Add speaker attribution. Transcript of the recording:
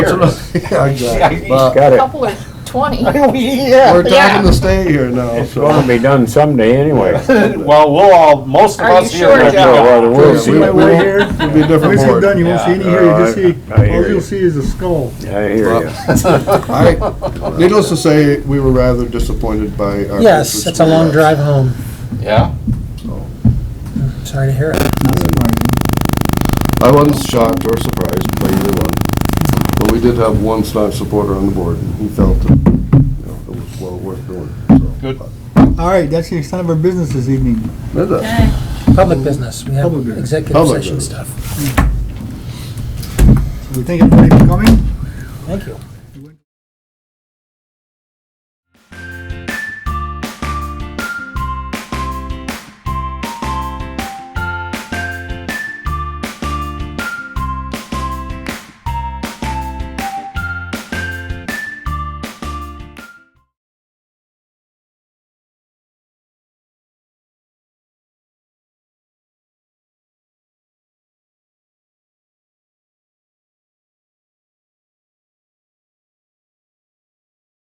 Speaker 1: Yeah, exactly.
Speaker 2: Well,
Speaker 1: But
Speaker 3: Got it.
Speaker 4: couple or 20.
Speaker 1: We're
Speaker 3: Yeah.
Speaker 1: talking to stay here now,
Speaker 3: It's
Speaker 1: so.
Speaker 3: gonna be done someday anyway.
Speaker 2: Well, we'll all, most of
Speaker 4: Are
Speaker 2: us
Speaker 4: you
Speaker 2: here.
Speaker 4: sure,
Speaker 2: will
Speaker 4: Jeff?
Speaker 2: go.
Speaker 3: Well, we'll
Speaker 1: Yeah,
Speaker 3: see.
Speaker 1: we-
Speaker 5: Right,
Speaker 1: we'll-
Speaker 5: we're
Speaker 1: It'll
Speaker 5: here.
Speaker 1: be a different
Speaker 5: Once it's
Speaker 1: board.
Speaker 5: done, you won't
Speaker 3: Yeah.
Speaker 5: see any here, you just
Speaker 3: Oh, I-
Speaker 5: see,
Speaker 3: I hear
Speaker 5: all
Speaker 3: you.
Speaker 5: you'll see is a skull.
Speaker 3: I hear you.
Speaker 1: I, needless to say, we were rather disappointed by our.
Speaker 6: Yes,
Speaker 1: Christmas
Speaker 6: it's a long
Speaker 1: tree.
Speaker 6: drive home.
Speaker 2: Yeah,
Speaker 6: Sorry to hear it.
Speaker 1: I wasn't shocked or surprised by either one, but we did have one staunch supporter on the board, and he felt that, you know, it was well worth doing, so.
Speaker 2: Good.
Speaker 5: All right, that's the extent of our business this evening.
Speaker 1: Is it?
Speaker 6: Public business, we have
Speaker 5: Public business.
Speaker 6: executive
Speaker 1: Public
Speaker 6: session
Speaker 1: business.
Speaker 6: stuff.
Speaker 5: So we thank everybody for coming.